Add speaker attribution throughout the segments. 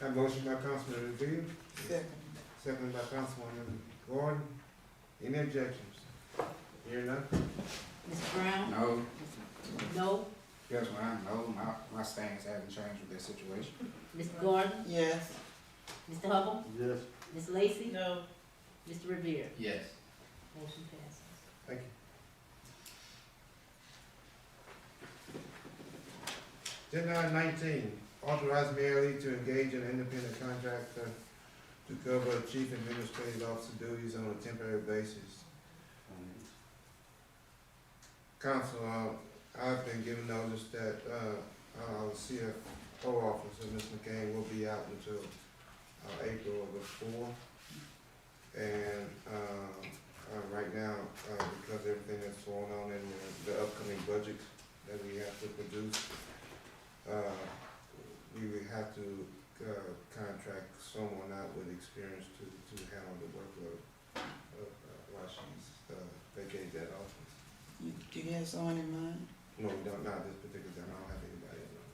Speaker 1: Have motion by Councilman Revere, second by Councilwoman Gordon. Any objections? Hearing none?
Speaker 2: Ms. Brown?
Speaker 3: No,
Speaker 2: No.
Speaker 3: yes, when I know, my, my stance haven't changed with that situation.
Speaker 2: Ms. Gordon?
Speaker 4: Yes.
Speaker 2: Mr. Hubble?
Speaker 1: Yes.
Speaker 2: Ms. Lacy?
Speaker 4: No.
Speaker 2: Mr. Revere?
Speaker 3: Yes.
Speaker 2: Motion passes.
Speaker 1: Thank you. Agenda item nineteen, authorize Mayor Lee to engage an independent contractor to cover chief administrative officer duties on a temporary basis. Council, uh, I've been given notice that, uh, our CFO officer, Ms. McCain, will be out until, uh, April of the fourth. And, uh, uh, right now, uh, because everything that's going on in the upcoming budget that we have to produce, uh, we would have to, uh, contract someone out with experience to, to handle the workload of, uh, while she's, uh, vacating that office.
Speaker 4: You- Do you have someone in mind?
Speaker 1: No, we don't, not this particular time, I don't have anybody in mind.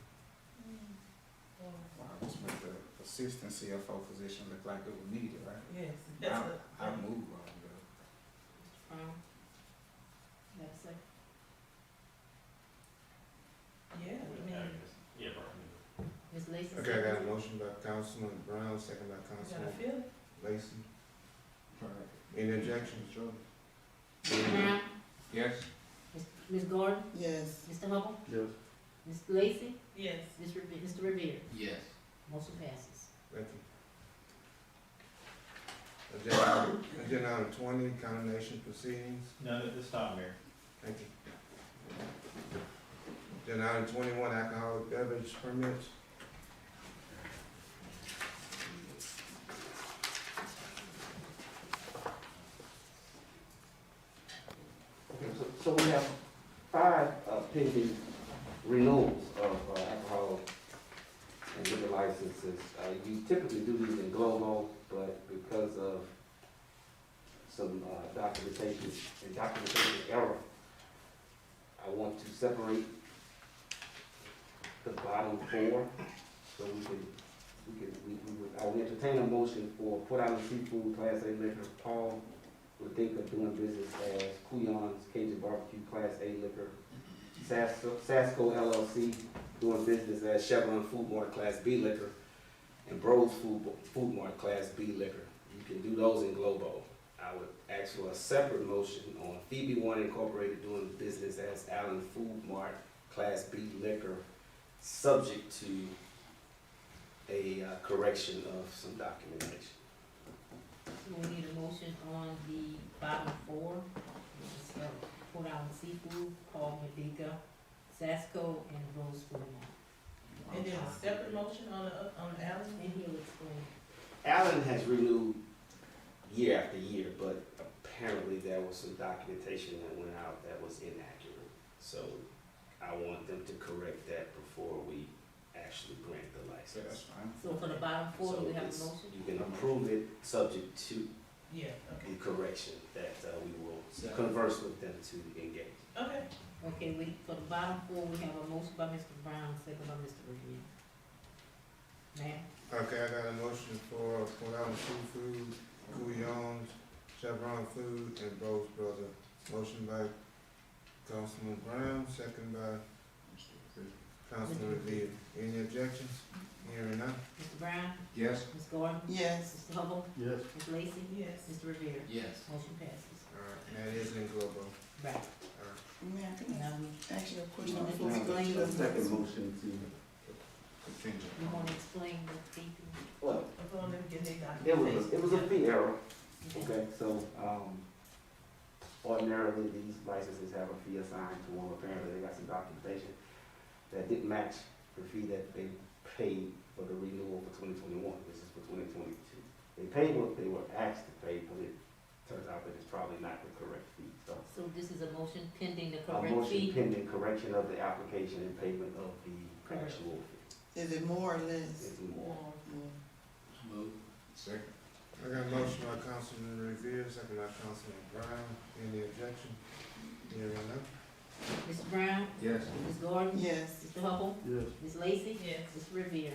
Speaker 3: Wow, this make the assistant CFO position look like it was needed, right?
Speaker 4: Yes.
Speaker 3: I, I move on, though.
Speaker 2: Ms. Brown? You have a second?
Speaker 4: Yeah,
Speaker 5: Yeah,
Speaker 2: Ms. Lacy?
Speaker 1: Okay, I got a motion by Councilman Brown, second by Councilman
Speaker 4: feel it.
Speaker 1: Lacy. Any objections?
Speaker 3: Sure.
Speaker 2: Ms. Brown?
Speaker 3: Yes,
Speaker 2: Ms. Ms. Gordon?
Speaker 4: Yes.
Speaker 2: Mr. Hubble?
Speaker 1: Yes.
Speaker 2: Ms. Lacy?
Speaker 4: Yes.
Speaker 2: Ms. Revere? Mr. Revere?
Speaker 3: Yes.
Speaker 2: Motion passes.
Speaker 1: Thank you. Agenda, agenda item twenty, condemnation proceedings,
Speaker 5: None at this time, Mayor.
Speaker 1: thank you. Agenda item twenty-one, alcoholic beverage permits,
Speaker 6: Okay, so, so we have five uh, pending renewals of uh, alcohol and liquor licenses. Uh, you typically do these in global, but because of some uh, documentation, and documentation error, I want to separate the bottom four, so we can, we can, we, we would, I would entertain a motion for Port Island Seafood, Class A Liquor, Paul would think of doing business as Kuyon's Cajun Barbecue Class A Liquor, Sas- Sasco LLC doing business as Chevron Food Mart Class B Liquor, and Bros Food, Food Mart Class B Liquor. You can do those in Globo. I would ask for a separate motion on Phoebe One Incorporated doing business as Allen Food Mart Class B Liquor, subject to a uh, correction of some documentation.
Speaker 2: So we need a motion on the bottom four, which is, uh, Port Island Seafood, Paul Medica, Sasco, and Rose Fremont.
Speaker 4: And then a separate motion on the, on the alley?
Speaker 2: And he'll explain.
Speaker 6: Allen has renewed year after year, but apparently there was some documentation that went out that was inaccurate. So I want them to correct that before we actually grant the
Speaker 3: so that's
Speaker 6: license.
Speaker 3: fine.
Speaker 2: So for the bottom four,
Speaker 6: So
Speaker 2: do we have a
Speaker 6: it's-
Speaker 2: motion?
Speaker 6: You can approve it, subject to
Speaker 4: Yeah, okay,
Speaker 6: the correction that uh, we will converse with them to engage.
Speaker 4: okay.
Speaker 2: Okay, we, for the bottom four, we have a motion by Mr. Brown, second by Mr. Revere. Ma'am?
Speaker 1: okay, I got a motion for Port Island Seafood, Kuyon's, Chevron Food, and Bros Brother. Motion by Councilman Brown, second by Councilman Revere. Any objections? Hearing none?
Speaker 2: Mr. Brown?
Speaker 3: Yes.
Speaker 2: Ms. Gordon?
Speaker 4: Yes.
Speaker 2: Mr. Hubble?
Speaker 1: Yes.
Speaker 2: Ms. Lacy?
Speaker 4: Yes.
Speaker 2: Mr. Revere?
Speaker 3: Yes.
Speaker 2: Motion passes.
Speaker 1: All right, and that is in global.
Speaker 2: Right.
Speaker 4: May I can
Speaker 2: Now,
Speaker 4: I ask you a question
Speaker 2: Mr.
Speaker 4: before we go
Speaker 2: Blaine.
Speaker 4: into the next?
Speaker 6: motion
Speaker 3: Contingent.
Speaker 2: you wanna explain the fee?
Speaker 6: Well,
Speaker 4: Upon them getting their
Speaker 6: it was, it was a fee error.
Speaker 2: to-
Speaker 6: Okay, so, um, ordinarily, these licenses have a fee assigned to them, apparently they got some documentation that didn't match the fee that they paid for the renewal for twenty twenty-one, this is for twenty twenty-two. They paid what they were asked to pay, but it turns out that it's probably not the correct fee, so.
Speaker 2: So this is a motion pending the
Speaker 6: A
Speaker 2: correct
Speaker 6: motion
Speaker 2: fee?
Speaker 6: pending correction of the application and payment of the actual fee,
Speaker 4: Is it more or less?
Speaker 6: it's more.
Speaker 4: More.
Speaker 3: Move. Second.
Speaker 1: I got a motion by Councilman Revere, second by Councilman Brown. Any objection? Hearing none?
Speaker 2: Mr. Brown?
Speaker 3: Yes.
Speaker 2: Ms. Gordon?
Speaker 4: Yes.
Speaker 2: Mr. Hubble?
Speaker 1: Yes.
Speaker 2: Ms. Lacy?
Speaker 4: Yes.
Speaker 2: Mr. Revere?